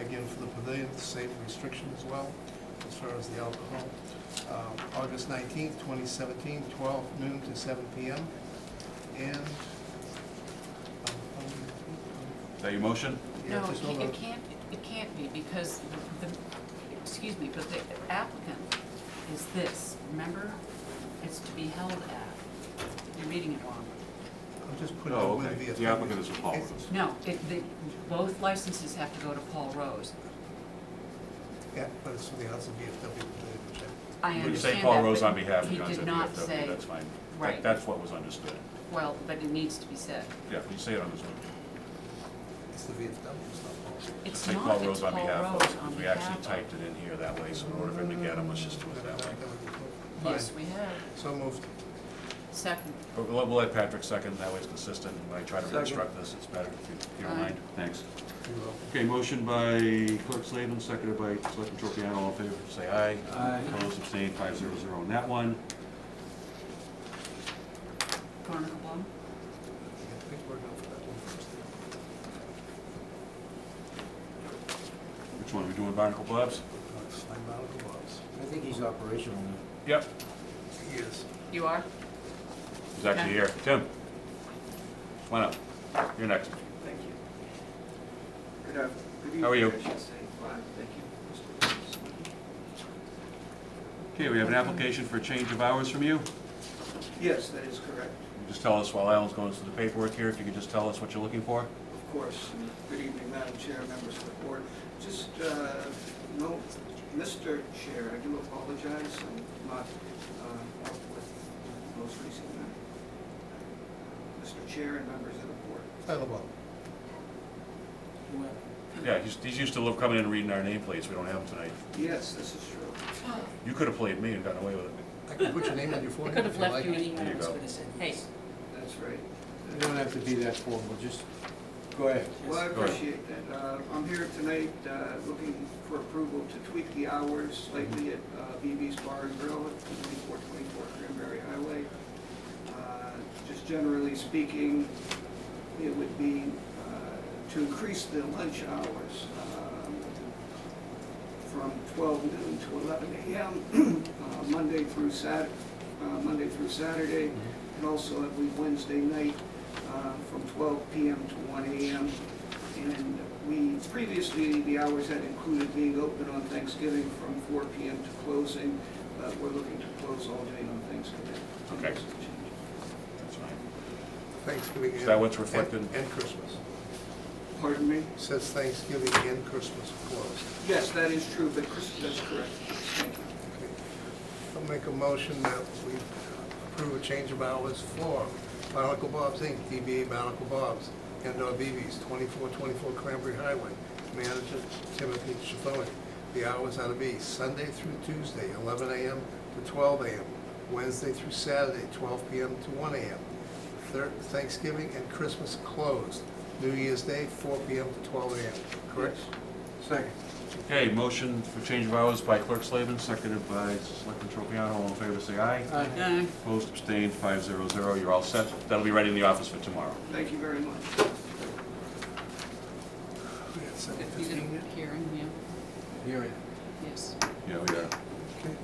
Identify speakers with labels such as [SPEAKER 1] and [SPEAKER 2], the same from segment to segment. [SPEAKER 1] again for the pavilion, the safe restriction as well, as far as the alcohol. Uh, August 19th, 2017, 12 noon to 7 p.m. And... um, um,
[SPEAKER 2] Is that your motion?
[SPEAKER 1] yeah,
[SPEAKER 3] No,
[SPEAKER 1] just hold
[SPEAKER 3] it
[SPEAKER 1] on.
[SPEAKER 3] it can't, it can't be, because the, the- excuse me, but the applicant is this, remember? It's to be held at. You're reading it wrong.
[SPEAKER 1] I'm just putting
[SPEAKER 2] Oh,
[SPEAKER 1] it with
[SPEAKER 2] okay.
[SPEAKER 1] the...
[SPEAKER 2] The applicant is Paul
[SPEAKER 1] It's-
[SPEAKER 2] Rose.
[SPEAKER 3] No, it, the, both licenses have to go to Paul Rose.
[SPEAKER 1] Yeah, but it's for the House of VFW Pavilion, which I-
[SPEAKER 3] I
[SPEAKER 2] But you
[SPEAKER 3] understand
[SPEAKER 2] say
[SPEAKER 3] that.
[SPEAKER 2] Paul Rose
[SPEAKER 3] but
[SPEAKER 2] on behalf of
[SPEAKER 3] He
[SPEAKER 2] Guns
[SPEAKER 3] did
[SPEAKER 2] at
[SPEAKER 3] not
[SPEAKER 2] VFW,
[SPEAKER 3] say,
[SPEAKER 2] that's fine. That-
[SPEAKER 3] right.
[SPEAKER 2] That's what was understood.
[SPEAKER 3] well, but it needs to be said.
[SPEAKER 2] Yeah, you say it on this one.
[SPEAKER 1] it's the VFW, it's not Paul.
[SPEAKER 3] It's
[SPEAKER 2] Say
[SPEAKER 3] not,
[SPEAKER 2] Paul
[SPEAKER 3] it's
[SPEAKER 2] Rose on
[SPEAKER 3] Paul
[SPEAKER 2] behalf of,
[SPEAKER 3] Rose on
[SPEAKER 2] because we
[SPEAKER 3] behalf
[SPEAKER 2] actually
[SPEAKER 3] of.
[SPEAKER 2] typed it in here that way, so in order for him to get them, let's just do it that way.
[SPEAKER 3] Yes, we have.
[SPEAKER 1] So moved.
[SPEAKER 3] Second.
[SPEAKER 2] But We'll we'll let Patrick second, that way it's consistent, and when I try to
[SPEAKER 1] Second.
[SPEAKER 2] reconstruct this, it's better if you- if you don't
[SPEAKER 3] Aye.
[SPEAKER 2] mind. Thanks.
[SPEAKER 1] You will.
[SPEAKER 2] Okay, motion by Clerk Slavin, seconded by Selectman Tropiano, all in favor, say aye.
[SPEAKER 4] Aye.
[SPEAKER 2] Opposed, abstained, five zero zero on that one.
[SPEAKER 3] Veronica Blum?
[SPEAKER 1] I think we're going for that one first.
[SPEAKER 2] Which one, are we doing Barnacle Bob's?
[SPEAKER 1] I'm out of the box.
[SPEAKER 4] I think he's operational now.
[SPEAKER 2] Yep.
[SPEAKER 1] Yes.
[SPEAKER 3] You are?
[SPEAKER 2] He's actually here. Tim? Why not? You're next.
[SPEAKER 5] Thank you. Good af- good evening.
[SPEAKER 2] How are you?
[SPEAKER 5] I should say. Fine, thank you. Mr. Williams.
[SPEAKER 2] Okay, we have an application for a change of hours from you.
[SPEAKER 5] Yes, that is correct,
[SPEAKER 2] Just tell us, while Alan's going through the paperwork here, if you could just tell us what you're looking for?
[SPEAKER 5] of course. Good evening, Madam Chair, members of the board. Just, uh, no, Mr. Chair, I do apologize, I'm not uh, up with the most recent, uh, Mr. Chair and members of the board.
[SPEAKER 1] Out of the box.
[SPEAKER 2] Yeah, he's, he's used to love coming in and reading our nameplates. We don't have them tonight.
[SPEAKER 5] Yes, this is true.
[SPEAKER 2] You could have played me and gotten away with it.
[SPEAKER 1] I can put your name on your
[SPEAKER 3] I
[SPEAKER 1] forehead.
[SPEAKER 3] could
[SPEAKER 1] if
[SPEAKER 3] have
[SPEAKER 1] you
[SPEAKER 3] left
[SPEAKER 1] like.
[SPEAKER 3] you any
[SPEAKER 2] There you
[SPEAKER 3] hours
[SPEAKER 2] go.
[SPEAKER 3] with this. Hey,
[SPEAKER 5] That's right.
[SPEAKER 4] You don't have to be that formal, just go ahead.
[SPEAKER 5] Well, I
[SPEAKER 2] Go ahead.
[SPEAKER 5] appreciate that. Uh, I'm here tonight uh, looking for approval to tweak the hours slightly at uh, BB's Bar and Grill at 2424 Cranberry Highway. Uh, Just generally speaking, it would be uh, to increase the lunch hours um, from 12 noon to 11 a.m., uh, Monday through Sat, uh, Monday through Saturday, and also every Wednesday night uh, from 12 p.m. to 1 a.m. And we, previously, the hours had included being open on Thanksgiving from 4 p.m. to closing, but we're looking to close all day on Thanksgiving.
[SPEAKER 2] Okay.
[SPEAKER 5] That's a change.
[SPEAKER 2] That's fine.
[SPEAKER 1] Thanksgiving.
[SPEAKER 2] Is
[SPEAKER 1] and-
[SPEAKER 2] that what's reflected?
[SPEAKER 1] and- And Christmas.
[SPEAKER 5] Pardon me?
[SPEAKER 1] Says Thanksgiving and Christmas closed.
[SPEAKER 5] Yes, that is true, but Chris, that's correct. Thank you.
[SPEAKER 1] Okay. I'll make a motion that we approve a change of hours for Barnacle Bob's Inc., DBA Barnacle Bob's, and/or BB's, 2424 Cranberry Highway, manager Timothy Schifoni. The hours are to be Sunday through Tuesday, 11 a.m. to 12 a.m., Wednesday through Saturday, 12 p.m. to 1 a.m., Thir- Thanksgiving and Christmas closed, New Year's Day, 4 p.m. to 12 a.m., correct?
[SPEAKER 4] Second.
[SPEAKER 2] Okay, motion for change of hours by Clerk Slavin, seconded by Selectman Tropiano. All in favor, say aye.
[SPEAKER 3] uh,
[SPEAKER 2] Opposed, abstained, five zero zero. You're all set. That'll be ready in the office for tomorrow.
[SPEAKER 5] Thank you very much.
[SPEAKER 1] We got seven
[SPEAKER 3] you did
[SPEAKER 1] fifteen yet?
[SPEAKER 3] a hearing, yeah,
[SPEAKER 4] Hearing.
[SPEAKER 3] yes.
[SPEAKER 2] Yeah, we are.
[SPEAKER 1] Okay.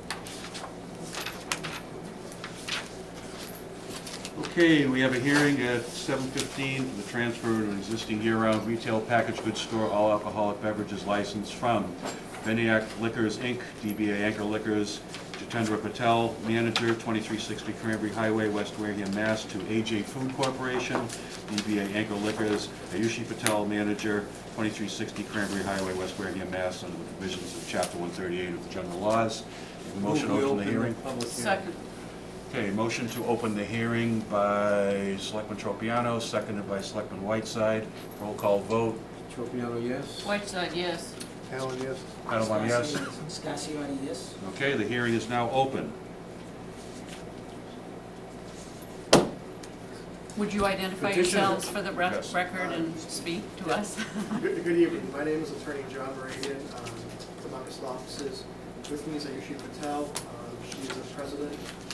[SPEAKER 2] Okay, we have a hearing at seven fifteen for the transfer of an existing year-round retail packaged goods store all alcoholic beverages license from Veniac Liquors, Inc., DBA Anchor Liquors, Jitendra Patel, manager, twenty-three sixty Cranberry Highway, West Wareham, Mass., to AJ Food Corporation, DBA Anchor Liquors, Ayushi Patel, manager, twenty-three sixty Cranberry Highway, West Wareham, Mass., under the provisions of chapter one thirty-eight of the general laws. Motion open the hearing.
[SPEAKER 3] Second,
[SPEAKER 2] Okay, motion to open the hearing by Selectman Tropiano, seconded by Selectman Whiteside. Roll call vote.
[SPEAKER 4] Tropiano, yes?
[SPEAKER 3] Whiteside, uh, yes.
[SPEAKER 1] Alan, yes?
[SPEAKER 2] Adelon, yes?
[SPEAKER 6] Scasiotti, yes.
[SPEAKER 2] Okay, the hearing is now open.
[SPEAKER 3] Would you identify
[SPEAKER 4] Petition.
[SPEAKER 3] yourselves for the rec-
[SPEAKER 2] Yes.
[SPEAKER 3] record and speak to us?
[SPEAKER 7] Good good evening, my name is Attorney John Moragan um, from August offices. With me is Ayushi Patel, Um, she is the president